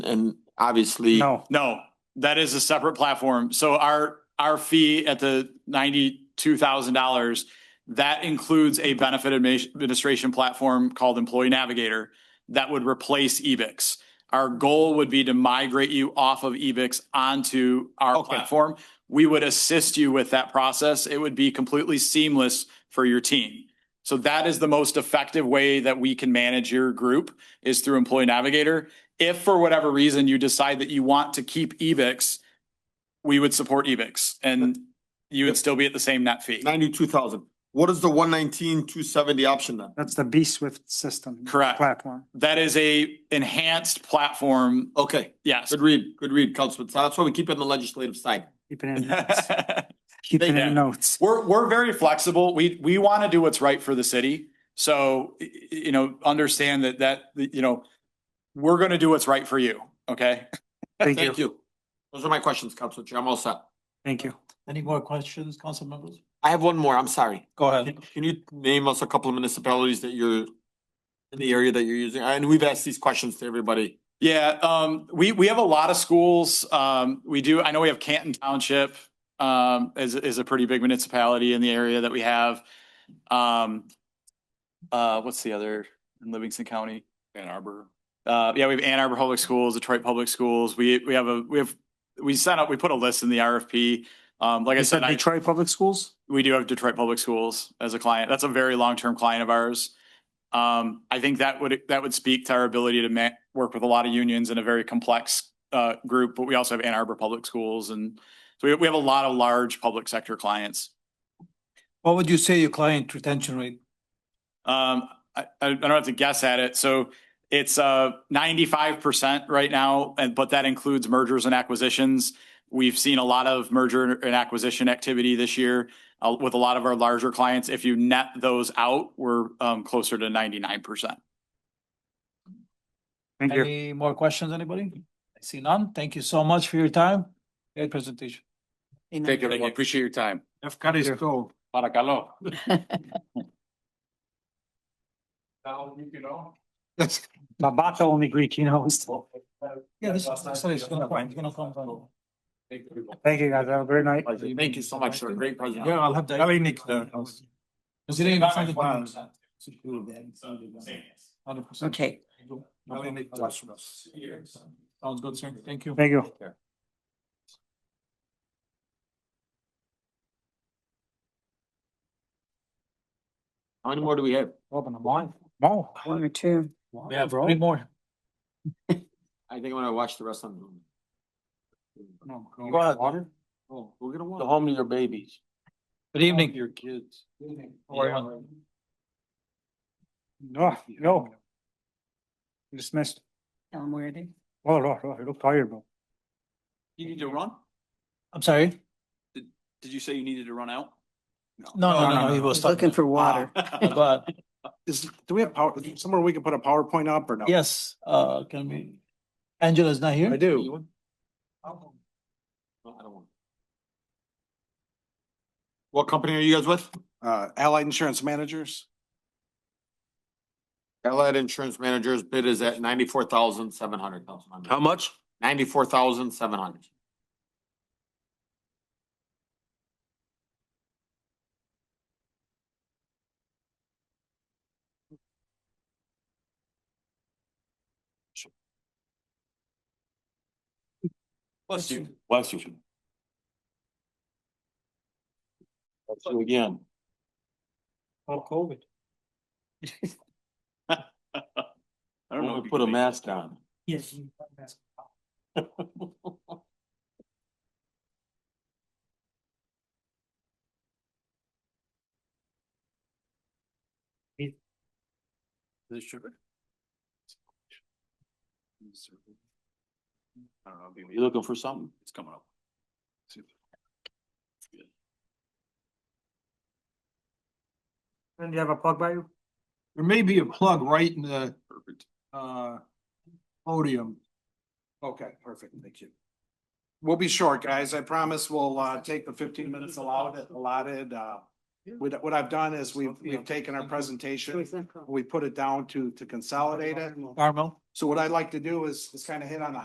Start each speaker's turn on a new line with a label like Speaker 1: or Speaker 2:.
Speaker 1: And obviously,
Speaker 2: No,
Speaker 3: No, that is a separate platform. So our, our fee at the ninety-two thousand dollars, that includes a benefit admi- administration platform called Employee Navigator that would replace E Ebix. Our goal would be to migrate you off of E Ebix onto our
Speaker 2: Okay.
Speaker 3: platform. We would assist you with that process. It would be completely seamless for your team. So that is the most effective way that we can manage your group is through Employee Navigator. If for whatever reason you decide that you want to keep E Evix, we would support E Evix and you would still be at the same net fee.
Speaker 4: Ninety-two thousand. What is the one nineteen, two seventy option then?
Speaker 2: that's the B Swift system.
Speaker 3: Correct.
Speaker 2: Platform.
Speaker 3: That is a enhanced platform.
Speaker 4: Okay,
Speaker 3: Yes.
Speaker 4: good read, good read, Councilman. So That's why we keep it on the legislative side.
Speaker 2: Keep it in, notes. keep it
Speaker 3: Yeah.
Speaker 2: in notes.
Speaker 3: We're, we're very flexible. We, we want to do what's right for the city. So, y- y- you know, understand that, that, you know, we're going to do what's right for you. Okay.
Speaker 2: Thank you,
Speaker 4: Thank you. Those are my questions, Council Chair. I'm all set.
Speaker 2: thank you.
Speaker 5: Any more questions, council members?
Speaker 4: I have one more. I'm sorry.
Speaker 5: Go ahead.
Speaker 4: Can can you name us a couple of municipalities that you're in the area that you're using? And we've asked these questions to everybody.
Speaker 3: Yeah, um, we, we have a lot of schools. Um, we do, I know we have Canton Township, um, is, is a pretty big municipality in the area that we have. Um, uh, what's the other in Livingston County? Ann Arbor. Uh, yeah, we have Ann Arbor Public Schools, Detroit Public Schools. We, we have a, we have, we sent out, we put a list in the RFP. Um, like I
Speaker 2: You said
Speaker 3: said, I,
Speaker 2: Detroit Public Schools?
Speaker 3: we do have Detroit Public Schools as a client. That's a very long-term client of ours. Um, I think that would, that would speak to our ability to ma- work with a lot of unions in a very complex uh, group, but we also have Ann Arbor Public Schools and so we, we have a lot of large public sector clients.
Speaker 5: What would you say your client retention rate?
Speaker 3: Um, I, I I don't have to guess at it. So it's uh ninety-five percent right now, and but that includes mergers and acquisitions. We've seen a lot of merger and acquisition activity this year uh, with a lot of our larger clients. If you net those out, we're um closer to ninety-nine percent.
Speaker 2: Thank you.
Speaker 5: Any more questions, anybody? I see none. Thank you so much for your time. Great presentation.
Speaker 6: Thank you, everyone. Appreciate your time.
Speaker 5: Evkaristo.
Speaker 6: Para calor.
Speaker 2: Babata only Greek, you know.
Speaker 5: Yeah, this is, sorry, it's gonna, it's gonna come. from-
Speaker 2: Thank you, guys. Have a great night.
Speaker 4: Thank you so much, sir. Great presentation.
Speaker 5: Yeah, I'll have that. Very neat. Considering the funded balance. Hundred percent.
Speaker 7: Okay.
Speaker 5: Very neat. Sounds good, sir. Thank you.
Speaker 2: Thank you.
Speaker 4: How many more do we have?
Speaker 5: Open the line.
Speaker 2: Wow.
Speaker 7: One or two.
Speaker 5: We have three more.
Speaker 4: I think I'm gonna watch the rest on. Zoom.
Speaker 5: Go ahead.
Speaker 4: Oh, we're gonna
Speaker 6: Go
Speaker 4: watch.
Speaker 6: home to your babies.
Speaker 5: Good evening.
Speaker 6: Your kids.
Speaker 5: How are you?
Speaker 2: No, no. Dismissed.
Speaker 7: Tell them where they.
Speaker 2: Oh, no, no, you look tired, bro.
Speaker 3: You need to run?
Speaker 5: I'm sorry?
Speaker 3: Did you say you needed to run out?
Speaker 5: No, no, no, he was
Speaker 7: Looking
Speaker 5: talking.
Speaker 7: for water.
Speaker 5: But
Speaker 8: Is, do we have power, somewhere we can put a PowerPoint up or no?
Speaker 5: yes, uh, can we? Angela's not here?
Speaker 8: I do.
Speaker 4: No, I don't want. What company are you guys with?
Speaker 8: Uh, Allied Insurance Managers.
Speaker 4: Allied Insurance Managers bid is at ninety-four thousand seven hundred.
Speaker 6: How much?
Speaker 4: Ninety-four thousand seven hundred.
Speaker 6: Bless you. Bless you. Bless you again.
Speaker 5: For COVID.
Speaker 3: I
Speaker 6: I'm gonna put a mask on.
Speaker 7: Yes.
Speaker 6: The sugar? I don't know. You looking for something? It's coming up.
Speaker 2: And you have a plug by you?
Speaker 5: There may be a plug right in the, uh, podium.
Speaker 8: Okay, perfect. Thank you. We'll be short, guys. I promise we'll, uh, take the fifteen minutes allotted, allotted, uh. What, what I've done is we've, we've taken our presentation, we put it down to, to consolidate it.
Speaker 5: Carmel?
Speaker 8: So what I'd like to do is, is kind of hit on the